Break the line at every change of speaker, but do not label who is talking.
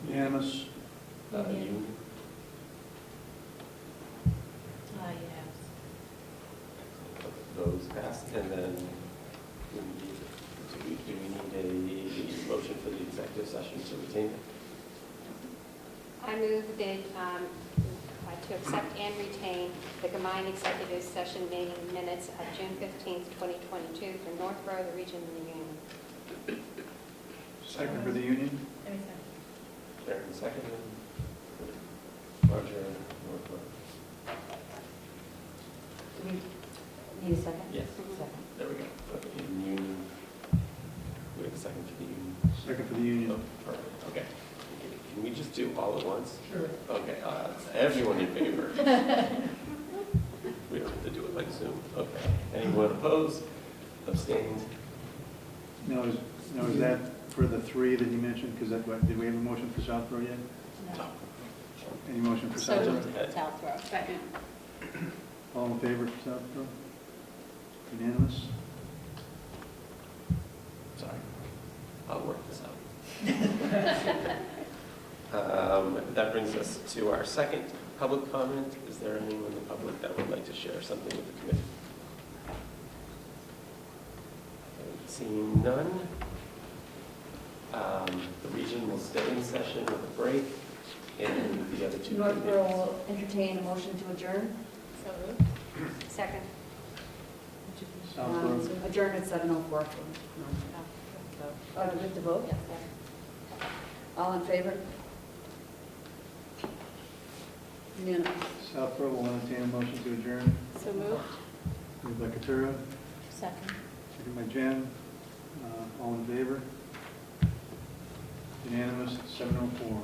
Unanimous?
Uh,
Yeah.
you,
Ah, yes.
those passed, and then we need, do we, do we need a motion for the executive session to retain it?
I move that, um, uh, to accept and retain the combined executive session meeting minutes of June 15th, 2022 for Northborough, the region, and the union.
Second for the union?
Karen seconded. Roger, Northborough.
Need a second?
Yes,
Second.
there we go. Okay, and you, we have a second for the union.
Second for the union.
Oh, perfect, okay. Can we just do all at once?
Sure.
Okay, uh, everyone in favor? We don't have to do it like Zoom, okay. Anyone opposed, abstained?
Now, is, now is that for the three that you mentioned? Because that, what- did we have a motion for Southborough yet? Any motion for
So
Southborough?
moved, Southborough.
Second.
All in favor for Southborough? Unanimous?
Sorry, I'll work this out. Um, That brings us to our second public comment. Is there anyone in the public that would like to share something with the committee? Seeing none, um, the region will stay in session with a break, and the other two
Northborough
committees.
will entertain a motion to adjourn.
So Second.
Southborough.
Um, Adjourn at 7:04. Oh, we have to vote?
Yes,
All in favor? Unanimous.
Southborough will entertain a motion to adjourn.
So moved.
Moved by Katura,
Second.
second by Jen. Uh, All in favor? Unanimous, 704.